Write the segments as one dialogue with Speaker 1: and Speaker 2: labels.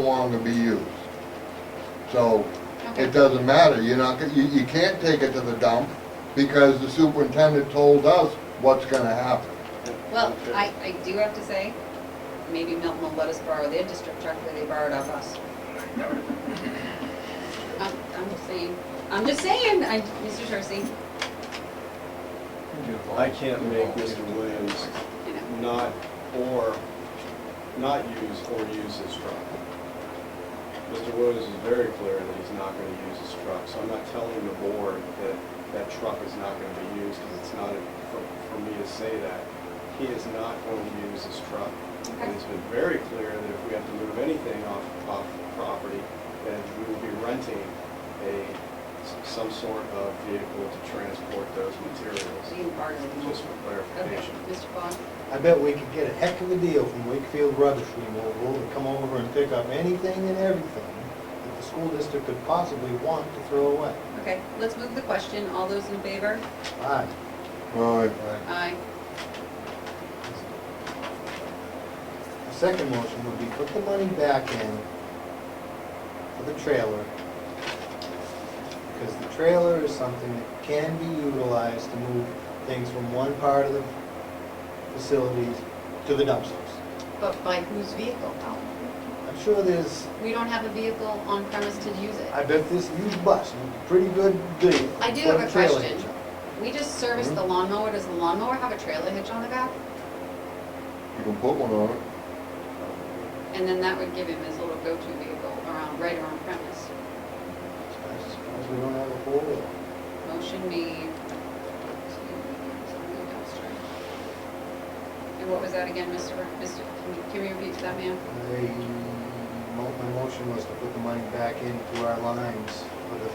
Speaker 1: want them to be used. So it
Speaker 2: Okay.
Speaker 1: doesn't matter, you're not, you, you can't take it to the dump because the superintendent told us what's gonna happen.
Speaker 2: Well, I, I do have to say, maybe Milton will let us borrow their district truck that they borrowed off us. I'm, I'm just saying, I'm just saying, I, Mr. Tercey,
Speaker 3: I can't make Mr. Williams
Speaker 2: you know,
Speaker 3: not, or, not use or use his truck. Mr. Williams is very clear that he's not going to use his truck, so I'm not telling the board that that truck is not going to be used, because it's not, for- for me to say that. He is not going to use his truck. And
Speaker 2: Okay.
Speaker 3: it's been very clear that if we have to move anything off, off property, then we will be renting a, some sort of vehicle to transport those materials,
Speaker 2: being part of the
Speaker 3: just for
Speaker 2: Okay,
Speaker 3: clarification.
Speaker 2: Mr. Bond,
Speaker 4: I bet we could get a heck of a deal from Wakefield Rubbish Removal to come over and pick up anything and everything that the school district could possibly want to throw away.
Speaker 2: okay, let's move the question, all those in favor?
Speaker 4: Aye.
Speaker 1: Alright.
Speaker 2: Aye.
Speaker 4: The second motion would be put the money back in for the trailer. Because the trailer is something that can be utilized to move things from one part of the facilities to the dumpsters.
Speaker 2: But by whose vehicle?
Speaker 4: I'm sure there's,
Speaker 2: We don't have a vehicle on premise to use it.
Speaker 4: I bet this used bus, would be pretty good deal.
Speaker 2: I do
Speaker 4: for
Speaker 2: have a
Speaker 4: the trailer
Speaker 2: question.
Speaker 4: hitch.
Speaker 2: We just service the lawnmower, does the lawnmower have a trailer hitch on the back?
Speaker 1: You can put one on it.
Speaker 2: And then that would give him his little go-to vehicle around, right around premise.
Speaker 4: I suppose we don't have a four-wheeler.
Speaker 2: Motion made to send the dumpster. And what was that again, Mr. Bur- Mr., can you- can you repeat that, ma'am?
Speaker 4: I, mo- my motion was to put the money back into our lines for the,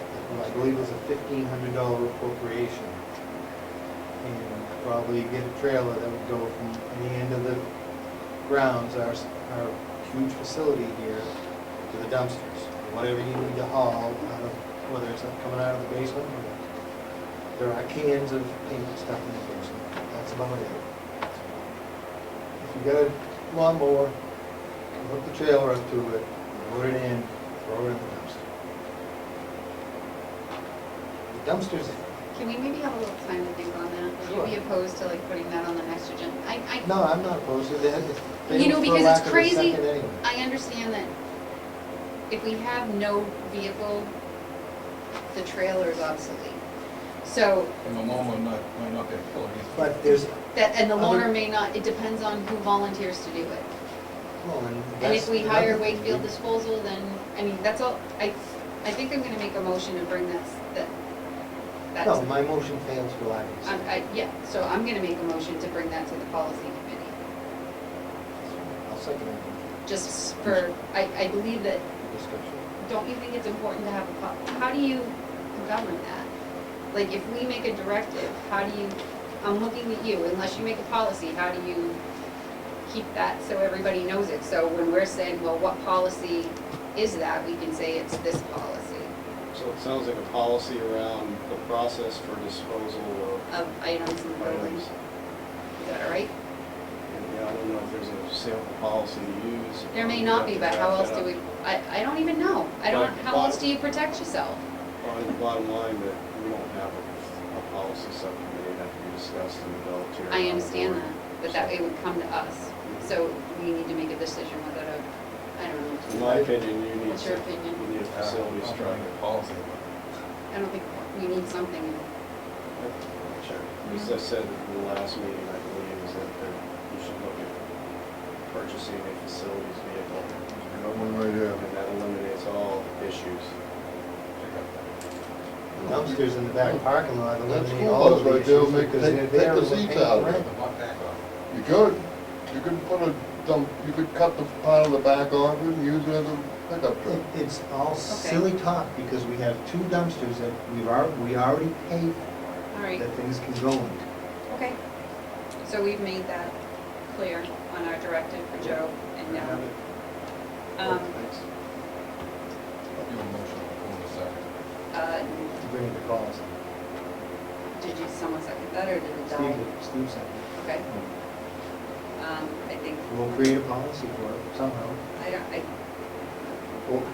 Speaker 4: I believe it was a fifteen hundred dollar appropriation. And probably get a trailer that would go from the end of the grounds, our, s- our huge facility here, to the dumpsters. Whatever you need to haul out of, whether it's coming out of the basement or, there are cans of paint and stuff in the basement. That's about it. If you got a lawnmower, Hook the trailer up to it, load it in, throw it in the dumpster. The dumpster's,
Speaker 2: Can we maybe have a little time to think on that? Would you be
Speaker 4: Sure.
Speaker 2: opposed to like putting that on the next agenda? I, I,
Speaker 4: no, I'm not opposed to that. It's- they
Speaker 2: You
Speaker 4: don't
Speaker 2: know,
Speaker 4: for
Speaker 2: because
Speaker 4: lack
Speaker 2: it's
Speaker 4: of a
Speaker 2: crazy.
Speaker 4: second anyway.
Speaker 2: I understand that if we have no vehicle, the trailer is obsolete. So,
Speaker 5: And the loan might not, might not be a killer either.
Speaker 4: But there's,
Speaker 2: that, and the loaner
Speaker 4: Other-
Speaker 2: may not, it depends on who volunteers to do it.
Speaker 4: well, and
Speaker 2: And
Speaker 4: that's
Speaker 2: if we
Speaker 4: another
Speaker 2: hire
Speaker 4: thing.
Speaker 2: Wakefield Disposal, then, I mean, that's all, I, I think I'm gonna make a motion and bring that, that, that's,
Speaker 4: No, my motion fails for lack of a
Speaker 2: I,
Speaker 4: second.
Speaker 2: I, yeah, so I'm gonna make a motion to bring that to the policy committee,
Speaker 4: I'll second that
Speaker 2: just for, I, I believe that,
Speaker 4: discussion.
Speaker 2: don't you think it's important to have a, po- how do you govern that? Like, if we make a directive, how do you, I'm looking at you, unless you make a policy, how do you keep that so everybody knows it? So when we're saying, well, what policy is that, we can say it's this policy.
Speaker 3: So it sounds like a policy around the process for disposal
Speaker 2: of items in the
Speaker 3: of
Speaker 2: building.
Speaker 3: items.
Speaker 2: Is that all right?
Speaker 3: And yeah, I don't know if there's a sample policy to use.
Speaker 2: There may not be, but how else do we, I, I don't even know. I don't, how else do you protect yourself?
Speaker 3: On the bottom line, that we don't have a, a policy subcommittee that can be discussed and developed here.
Speaker 2: I understand that, but that it would come to us. So we need to make a decision whether to, I don't
Speaker 3: In
Speaker 2: know.
Speaker 3: my opinion, you need.
Speaker 2: What's your
Speaker 3: to-
Speaker 2: opinion?
Speaker 3: You need a facilities
Speaker 5: Not
Speaker 3: truck.
Speaker 5: really a Policy, but
Speaker 2: I don't think, we need something.
Speaker 3: Sure. As I said in the last meeting, I believe, is that there- you should look at purchasing a facilities vehicle,
Speaker 1: You got one right there.
Speaker 3: and that eliminates all issues.
Speaker 4: The Dumpsters in the back parking lot,
Speaker 1: That
Speaker 4: eliminate
Speaker 1: school
Speaker 4: all
Speaker 1: bus
Speaker 4: of
Speaker 1: right
Speaker 4: the
Speaker 1: there,
Speaker 4: issues
Speaker 1: make-
Speaker 4: because
Speaker 1: take-
Speaker 4: they're
Speaker 1: take the
Speaker 4: there and we're
Speaker 1: seats
Speaker 4: paying
Speaker 1: out.
Speaker 4: rent.
Speaker 5: the lock back off.
Speaker 1: You could, you could put a dump, you could cut the part of the back off it and use it as a pickup truck.
Speaker 4: It- It's all silly talk because we have two dumpsters that we've, al- we already paid
Speaker 2: All right,
Speaker 4: that things can go into.
Speaker 2: okay. So we've made that clear on our directive for Joe and now. Um,
Speaker 3: Thanks.
Speaker 5: You have a motion on the floor in a second.
Speaker 2: uh,
Speaker 4: to bring the calls.
Speaker 2: did you, someone second that or did it die?
Speaker 4: Steve, Steve said,
Speaker 2: Okay. Um, I think
Speaker 4: we'll create a policy for it somehow.
Speaker 2: I don't, I,
Speaker 4: Well,